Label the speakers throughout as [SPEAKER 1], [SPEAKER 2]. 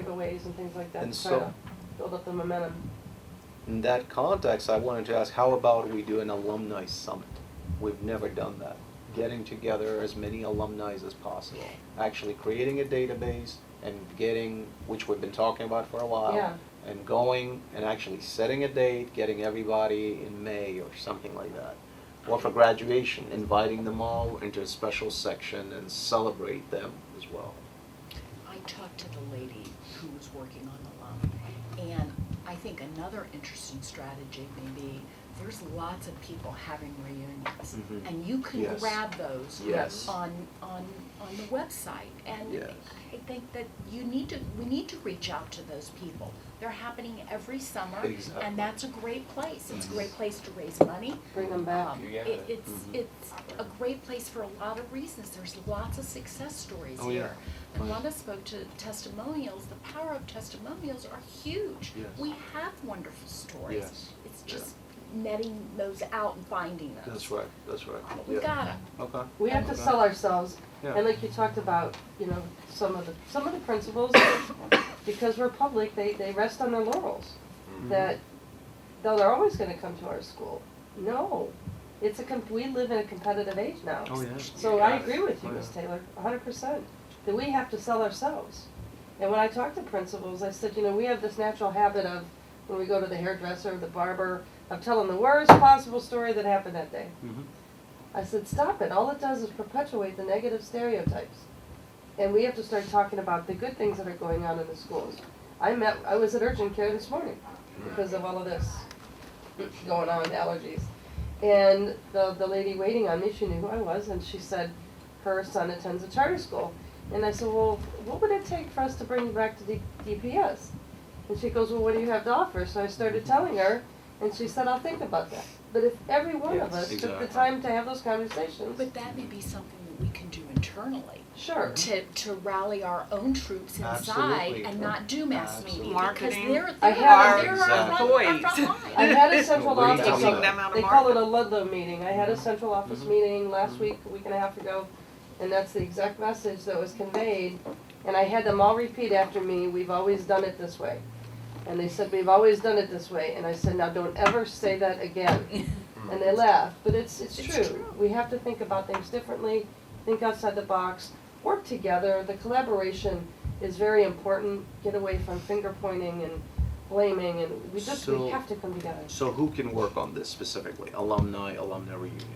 [SPEAKER 1] giveaways and things like that
[SPEAKER 2] And
[SPEAKER 1] to try
[SPEAKER 2] so-
[SPEAKER 1] to build up the momentum.
[SPEAKER 2] In that context, I wanted to ask, how about we do an alumni summit? We've never done that. Getting together as many alumni as possible, actually creating a database and getting, which we've been talking about for a while.
[SPEAKER 1] Yeah.
[SPEAKER 2] And going and actually setting a date, getting everybody in May or something like that. Or for graduation, inviting them all into a special section and celebrate them as well.
[SPEAKER 3] I talked to the lady who was working on the loan, and I think another interesting strategy may be, there's lots of people having reunions.
[SPEAKER 2] Mhm.
[SPEAKER 3] And you can
[SPEAKER 2] Yes.
[SPEAKER 3] grab those
[SPEAKER 2] Yes.
[SPEAKER 3] on, on, on the website. And
[SPEAKER 2] Yes.
[SPEAKER 3] I think that you need to, we need to reach out to those people. They're happening every summer,
[SPEAKER 2] Exactly.
[SPEAKER 3] and that's a great place. It's a
[SPEAKER 2] Mhm.
[SPEAKER 3] great place to raise money.
[SPEAKER 1] Bring them back.
[SPEAKER 3] Um,
[SPEAKER 4] You get
[SPEAKER 3] it-
[SPEAKER 4] it.
[SPEAKER 3] It's,
[SPEAKER 2] Mhm.
[SPEAKER 3] it's a great place for a lot of reasons. There's lots of success stories
[SPEAKER 2] Oh,
[SPEAKER 3] here.
[SPEAKER 2] yeah.
[SPEAKER 3] And
[SPEAKER 2] Oh, yeah.
[SPEAKER 3] Wanda spoke to testimonials. The power of testimonials are huge.
[SPEAKER 2] Yes.
[SPEAKER 3] We have wonderful stories.
[SPEAKER 2] Yes.
[SPEAKER 3] It's
[SPEAKER 2] Yeah.
[SPEAKER 3] just netting those out and finding them.
[SPEAKER 2] That's right, that's right,
[SPEAKER 3] We
[SPEAKER 2] yeah,
[SPEAKER 3] got 'em.
[SPEAKER 2] okay.
[SPEAKER 1] Oh We have to
[SPEAKER 2] Okay.
[SPEAKER 1] sell ourselves,
[SPEAKER 2] Yeah.
[SPEAKER 1] and like you talked about, you know, some of the, some of the principals, because we're public, they, they rest on their laurels.
[SPEAKER 2] Mm-hmm.
[SPEAKER 1] That, though they're always gonna come to our school, no, it's a, com- we live in a competitive age now.
[SPEAKER 2] Oh, yeah.
[SPEAKER 1] So I agree with you,
[SPEAKER 2] Oh, yeah.
[SPEAKER 1] Ms. Taylor, hundred percent, that we have to sell ourselves. And when I talk to principals, I said, you know, we have this natural habit of, when we go to the hairdresser, the barber, of telling the worst possible story that happened that day.
[SPEAKER 2] Mhm.
[SPEAKER 1] I said, stop it. All it does is perpetuate the negative stereotypes. And we have to start talking about the good things that are going on in the schools. I met, I was at urgent care this morning because of all of this going on, allergies. And the, the lady waiting on me, she knew who I was, and she said her son attends a charter school. And I said, well, what would it take for us to bring you back to D- DPS? And she goes, well, what do you have to offer? So I started telling her, and she said, I'll think about that. But if every one of
[SPEAKER 2] Yes,
[SPEAKER 1] us took the
[SPEAKER 2] exactly.
[SPEAKER 1] time to have those conversations,
[SPEAKER 3] But that may be something that we can do internally.
[SPEAKER 1] sure.
[SPEAKER 3] To, to rally our own troops inside
[SPEAKER 2] Absolutely.
[SPEAKER 3] and not do mass
[SPEAKER 2] Absolutely.
[SPEAKER 3] media.
[SPEAKER 5] Marketing
[SPEAKER 3] Because
[SPEAKER 1] I
[SPEAKER 3] they're,
[SPEAKER 1] have-
[SPEAKER 3] they're, they're our front, our front
[SPEAKER 5] Exactly.
[SPEAKER 3] line.
[SPEAKER 1] I had a central
[SPEAKER 2] We're
[SPEAKER 1] office.
[SPEAKER 2] Taking
[SPEAKER 5] Taking
[SPEAKER 2] them
[SPEAKER 5] them out
[SPEAKER 1] They
[SPEAKER 5] of
[SPEAKER 1] call it a
[SPEAKER 5] market.
[SPEAKER 1] Ludlow Mm-hmm. meeting. I had a central office
[SPEAKER 2] Mhm.
[SPEAKER 1] meeting last
[SPEAKER 2] Mhm.
[SPEAKER 1] week, a week and a half ago, and that's the exact message that was conveyed. And I had them all repeat after me, we've always done it this way. And they said, we've always done it this way. And I said, now don't ever say that again. And they laughed, but it's, it's
[SPEAKER 3] It's
[SPEAKER 1] true.
[SPEAKER 3] true.
[SPEAKER 1] We have to think about things differently, think outside the box, work together. The collaboration is very important. Get away from finger pointing and blaming and we just,
[SPEAKER 2] So-
[SPEAKER 1] we have to come together.
[SPEAKER 2] So who can work on this specifically? Alumni, alumni reunion?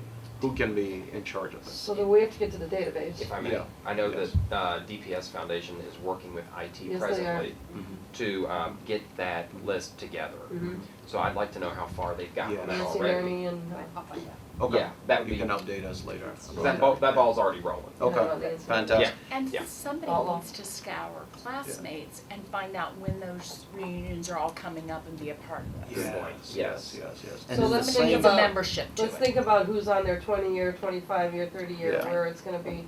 [SPEAKER 2] Who can be in charge of this?
[SPEAKER 1] So then we have to get to the database.
[SPEAKER 4] If I may,
[SPEAKER 2] Yeah.
[SPEAKER 4] I know
[SPEAKER 2] Yes.
[SPEAKER 4] that uh, DPS Foundation is working with
[SPEAKER 1] Yes,
[SPEAKER 4] IT
[SPEAKER 1] they are.
[SPEAKER 4] presently
[SPEAKER 2] Mm-hmm.
[SPEAKER 4] to um, get that list together.
[SPEAKER 1] Mhm.
[SPEAKER 4] So I'd like to know how far they've gotten on that
[SPEAKER 1] Nancy
[SPEAKER 4] already.
[SPEAKER 1] Nerney and.
[SPEAKER 3] I'll find out.
[SPEAKER 2] Okay.
[SPEAKER 4] Yeah, that would
[SPEAKER 2] You
[SPEAKER 4] be-
[SPEAKER 2] can update us later.
[SPEAKER 4] 'Cause That ball, that ball's already rolling.
[SPEAKER 2] Okay, Oh, fantastic.
[SPEAKER 3] And
[SPEAKER 4] Yeah.
[SPEAKER 3] somebody
[SPEAKER 1] Follow.
[SPEAKER 3] needs to scour classmates and find out when those reunions are all coming up and be a part of those.
[SPEAKER 4] Yeah.
[SPEAKER 2] Yes, yes, yes, yes. And
[SPEAKER 1] So
[SPEAKER 2] it's the
[SPEAKER 1] let's think
[SPEAKER 3] Somebody needs
[SPEAKER 2] same,
[SPEAKER 3] a
[SPEAKER 1] about-
[SPEAKER 3] membership to it.
[SPEAKER 1] Let's think about who's on their twenty year, twenty five year, thirty year,
[SPEAKER 2] Yeah.
[SPEAKER 1] where it's gonna be.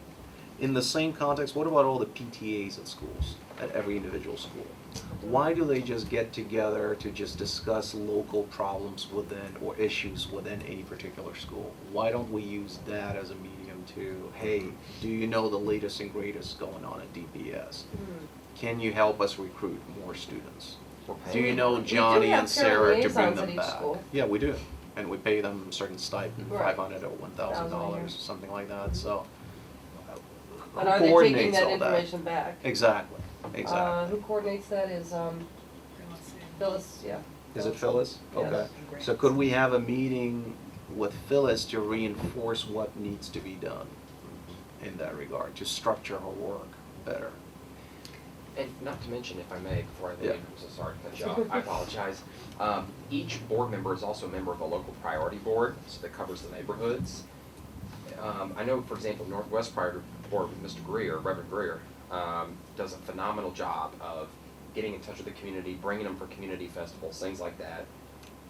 [SPEAKER 2] in the same context, what about all the PTAs at schools, at every individual school? Why do they just get together to just discuss local problems within, or issues within a particular school? Why don't we use that as a medium to, hey, do you know the latest and greatest going on at DPS? Can you help us recruit more students?
[SPEAKER 4] We're
[SPEAKER 2] Do you
[SPEAKER 4] paying.
[SPEAKER 2] know
[SPEAKER 1] We do
[SPEAKER 2] Johnny
[SPEAKER 1] have
[SPEAKER 2] and Sarah to
[SPEAKER 1] parent
[SPEAKER 2] bring
[SPEAKER 1] liaisons at
[SPEAKER 2] them
[SPEAKER 1] each
[SPEAKER 2] back?
[SPEAKER 1] school.
[SPEAKER 2] Yeah, we do, and we pay them a certain stipend,
[SPEAKER 1] Right.
[SPEAKER 2] five hundred or one
[SPEAKER 1] Thousand
[SPEAKER 2] thousand
[SPEAKER 1] a year.
[SPEAKER 2] dollars, something like that, so. uh, who
[SPEAKER 1] And are they taking
[SPEAKER 2] coordinates
[SPEAKER 1] that
[SPEAKER 2] all
[SPEAKER 1] information back?
[SPEAKER 2] Exactly,
[SPEAKER 1] Uh,
[SPEAKER 2] exactly.
[SPEAKER 1] who coordinates that is, um, Phyllis, yeah.
[SPEAKER 2] Is it Phyllis?
[SPEAKER 1] Yes.
[SPEAKER 2] Okay. So could we have a meeting with Phyllis to reinforce what needs to be done in that regard, to structure her work better?
[SPEAKER 4] And not to mention, if I may, before I
[SPEAKER 2] Yeah.
[SPEAKER 4] leave, I'm so sorry to cut you off, I apologize. Um, Each board member is also a member of a local priority board, so that covers the neighborhoods. Um, I know, for example, Northwest Priority Board with Mr. Greer, Reverend Greer, um, does a phenomenal job of getting in touch with the community, bringing them for community festivals, things like that.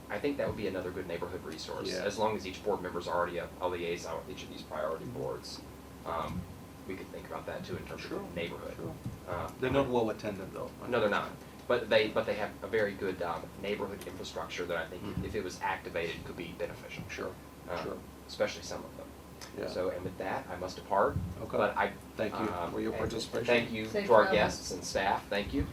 [SPEAKER 4] I think that would be another good neighborhood resource,
[SPEAKER 2] Yeah.
[SPEAKER 4] as long as each board member's already a, a liaison with each of these priority boards. Um, we could think about that too in terms
[SPEAKER 2] Sure,
[SPEAKER 4] of neighborhood.
[SPEAKER 2] sure.
[SPEAKER 4] Uh,
[SPEAKER 2] They're not well attended though. right?
[SPEAKER 4] no, they're not. But they, but they have a very good um, neighborhood infrastructure that I think,
[SPEAKER 2] Mhm.
[SPEAKER 4] if it was activated, could be beneficial.
[SPEAKER 2] Sure,
[SPEAKER 4] Uh,
[SPEAKER 2] sure,
[SPEAKER 4] Especially some of them.
[SPEAKER 2] yeah.
[SPEAKER 4] So, and with that, I must depart.
[SPEAKER 2] Okay.
[SPEAKER 4] But I.
[SPEAKER 2] Thank you
[SPEAKER 4] um,
[SPEAKER 2] for your
[SPEAKER 4] and
[SPEAKER 2] participation.
[SPEAKER 4] Thank you
[SPEAKER 1] Safe
[SPEAKER 4] to our
[SPEAKER 1] travels.
[SPEAKER 4] guests and staff. Thank you.